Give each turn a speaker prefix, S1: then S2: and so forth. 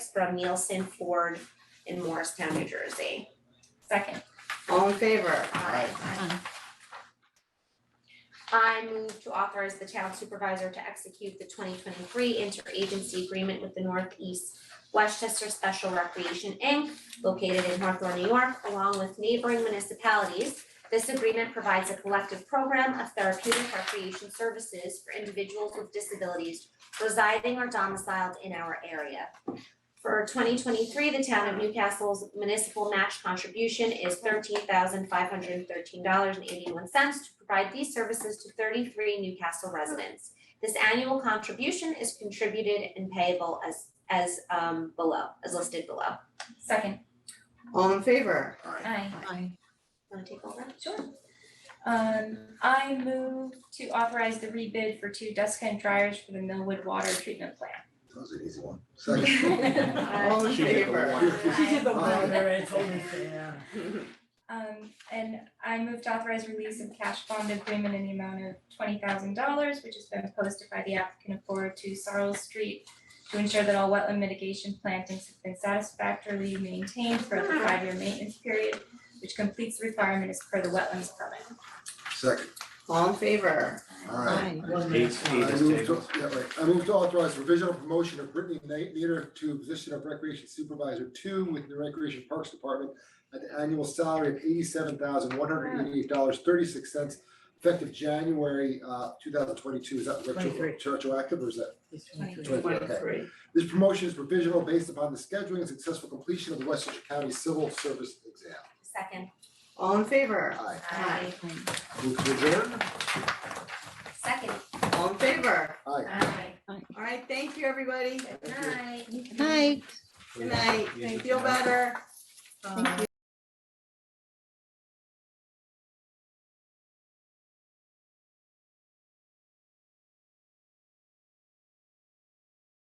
S1: from Nielsen Ford in Morristown, New Jersey.
S2: Second.
S3: All in favor?
S1: I move to authorize the town supervisor to execute the twenty twenty-three interagency agreement with the Northeast Westchester Special Recreation Inc. located in Hawthorne, New York, along with neighboring municipalities. This agreement provides a collective program of therapeutic recreation services for individuals with disabilities residing or domiciled in our area. For twenty twenty-three, the town of Newcastle's municipal match contribution is thirteen thousand five hundred and thirteen dollars and eighty-one cents to provide these services to thirty-three Newcastle residents. This annual contribution is contributed and payable as as um below, as listed below.
S2: Second.
S3: All in favor?
S2: Aye.
S4: Aye.
S1: Wanna take over?
S2: Sure. Um, I move to authorize the rebid for two desk and dryers for the Millwood Water Treatment
S5: That was an easy one.
S2: Plant.
S3: All in
S6: She did the
S3: favor?
S6: one.
S2: She did the
S3: one.
S6: Alright, it's only fair.
S2: Um, and I move to authorize release of cash bond agreement in the amount of twenty thousand dollars, which has been posted by the applicant of four oh two Sorrel Street to ensure that all wetland mitigation plantings have been satisfactorily maintained for the five-year maintenance period, which completes the requirement as per the wetlands permit.
S5: Second,
S3: All in favor?
S5: alright.
S6: One
S7: Eight,
S6: minute.
S5: I
S7: eight is
S5: move to,
S7: tabled.
S5: yeah, right, I move to authorize provisional promotion of Brittany Knight Leader to a position of Recreation Supervisor Two with the Recreation Parks Department at the annual salary of eighty-seven thousand one hundred eighty-eight dollars thirty-six cents effective January uh two thousand twenty-two. Is that retro-
S6: Twenty-three.
S5: retroactive or is that?
S6: It's twenty-three.
S5: Twenty-three, okay. This promotion is provisional based upon the scheduling and successful completion of the Westchester County Civil Service Exam.
S1: Second.
S3: All in favor?
S5: Aye.
S1: Aye.
S5: Move to adjourn?
S1: Second.
S3: All in favor?
S5: Aye.
S1: Aye.
S3: All right, thank you, everybody.
S1: Aye.
S4: Aye.
S3: Good night.
S7: Yeah.
S3: Feel better. Um,